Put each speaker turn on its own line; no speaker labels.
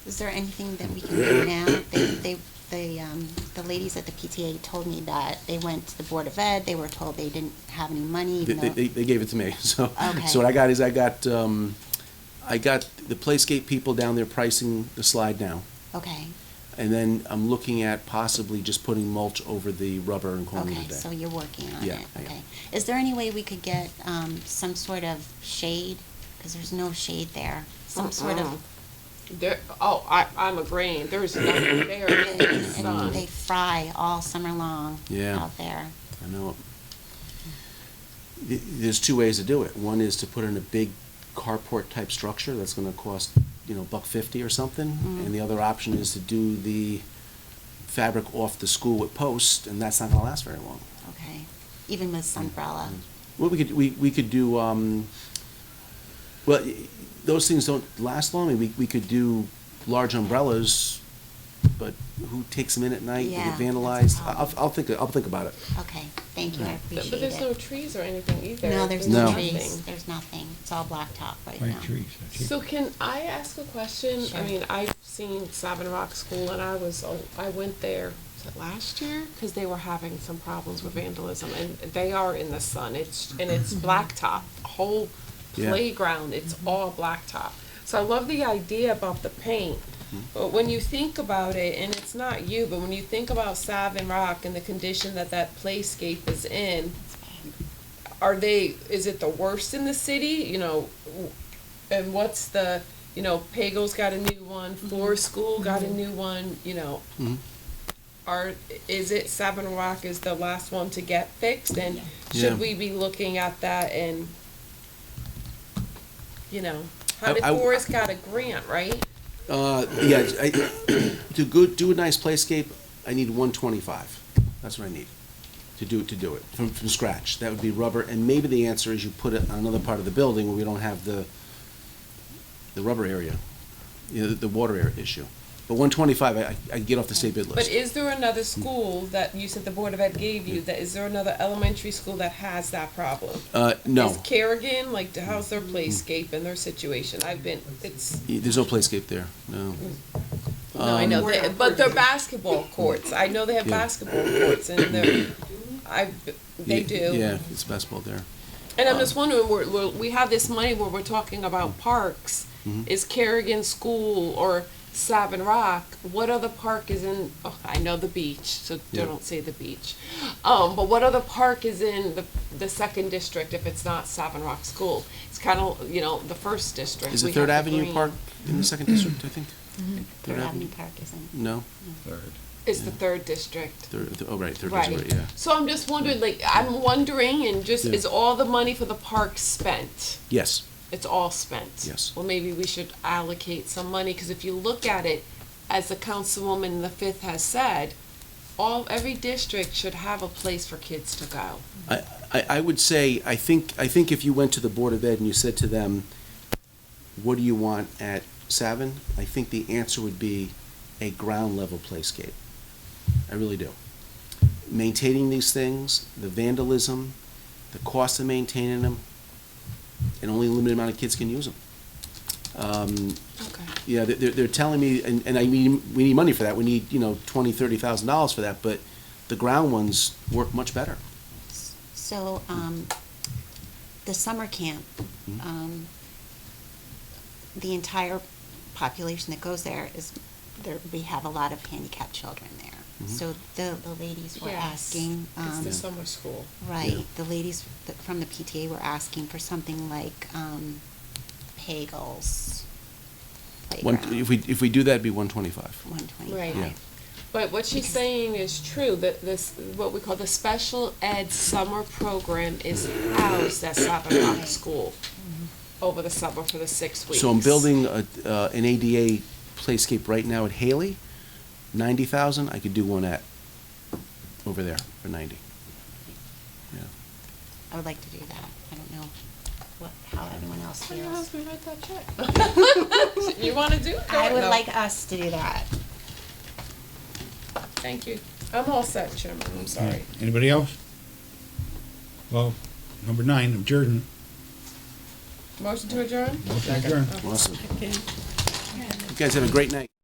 Is there anything that we can do now? They, they, the, um, the ladies at the PTA told me that they went to the Board of Ed, they were told they didn't have any money,
They,
even
they-
though.
they, they gave it to me, so,
Okay.
so what I got is I got, um, I got the Playscape people down there pricing the slide now.
Okay,
And then I'm looking at possibly just putting mulch over the rubber and calling
okay,
it a
so
day.
you're working on
Yeah,
it,
I am.
okay. Is there any way we could get, um, some sort of shade? Cause there's no shade there, some sort of,
There, oh, I, I'm agreeing, there's nothing there, in the
and they
sun.
fry all summer long
Yeah.
out there.
I know. Th- There's two ways to do it. One is to put in a big carport-type structure that's gonna cost, you know, buck fifty or something.
Mm-hmm.
And the other option is to do the fabric off the school with posts, and that's not gonna last very long.
Okay, even with
Mm-hmm.
sunbrella.
Well, we could, we, we could do, um, well, y- those things don't last long, we, we could do large umbrellas, but who takes them in at night, they
Yeah,
get
that's a
vandalized, I- I'll,
problem.
I'll think, I'll think about it.
Okay, thank you, I
But
appreciate
there's no
it.
trees or anything either.
No, there's no
No.
trees, there's nothing, it's all blacktop right now.
Pine trees, I think.
So can I ask a question?
Sure.
I mean, I've seen Sabin Rock School and I was, oh, I went there, was it last year? Because they were having some problems with vandalism and they are in the sun, it's, and it's blacktop, whole
Yeah.
playground, it's all blacktop. So I love the idea about the paint, but when you think about it, and it's not you, but when you think about Sabin Rock and the condition that that playscape is in, are they, is it the worst in the city, you know? w- And what's the, you know, Pago's got a new one, Floor School got a new one, you know?
Mhm.
Are, is it Sabin Rock is the last one to get fixed, and
Yeah.
should we be looking at that and, you know? How
I-
did
I-
Forest got a grant, right?
Uh, yeah, I, to go, do a nice playscape, I need one twenty-five, that's what I need, to do, to do it, from, from scratch, that would be rubber, and maybe the answer is you put it on another part of the building where we don't have the, the rubber area, you know, the, the water area issue. But one twenty-five, I, I I'd get off the state bid list.
But is there another
Mm.
school that, you said the Board of Ed gave you, that, is there another elementary school that has that problem?
Uh, no, Mm-hmm.
Is Carrigan, like, to how's their playscape and their situation? I've been, it's,
Y- there's no playscape there, no. Um,
no, I know, they- but they're basketball courts. I know they have
Yeah.
basketball courts and they're, I, they
Y-
do.
Yeah, Uh, it's basketball there.
And I'm just wondering, we're, we're, we have this money where we're talking about parks.
Mm-hmm.
Is Carrigan School or Savin Rock? What other park is in? Oh, I know the beach, so
Yeah.
don't say the beach. Um, but what other park is in the, the second district if it's not Savin Rock School? It's kind of you know the first district.
Is
We
it
have
Third
the
Avenue
green. Mm-hmm.
Park in the second district, I think?
Third Avenue
Avenue.
Park isn't.
No?
Third.
It's the third district.
Third, th- oh, right, third
Right.
district, yeah.
So I'm just wondering, like, I'm wondering, and just
Yeah.
is all the money for the park spent?
Yes,
it's all spent.
Yes.
Well, maybe we should allocate some money, because if you look at it, as the councilwoman in the fifth has said, all, every district should have a place for kids to go.
I, I, I would say, I think, I think if you went to the Board of Ed and you said to them, what do you want at Savin? I think the answer would be a ground level playscape. I really do. Maintaining these things, the vandalism, the cost of maintaining them, and only a limited amount of kids can use them.
Okay.
Yeah, they- they're, they're telling me, and, and I mean, we need money for that, we need, you know, twenty, thirty thousand dollars for that, but the ground ones work much better.
So,
Hmm.
um, the summer camp, um, the entire population that goes there is, there, we have a lot of handicapped children
Hmm.
there. So the, the ladies were asking, um,
summer school.
right, the ladies th- from the PTA were asking for something like, um, Pagels
One,
playground.
if we, if we do that, it'd be one twenty-five.
One twenty-five.
Right.
Yeah.
But what she's
Because-
saying is true, that this, what we call the special ed summer program is housed at Savin Rock School
Mm-hmm.
over the summer for the six weeks.
So I'm building a, uh, an ADA playscape right now at Haley, ninety thousand, I could do one at, over there for ninety. Yeah.
I would like to do that. I don't know what, how everyone else
How do you
feels.
ask me about that check? You wanna do it?
I would
No.
like us to do that.
Thank you. I'm all set, Chairman, I'm sorry.
Anybody else? Well, number nine, adjourn.
Motion to adjourn?
Adjourn.
Awesome. guys have a great night.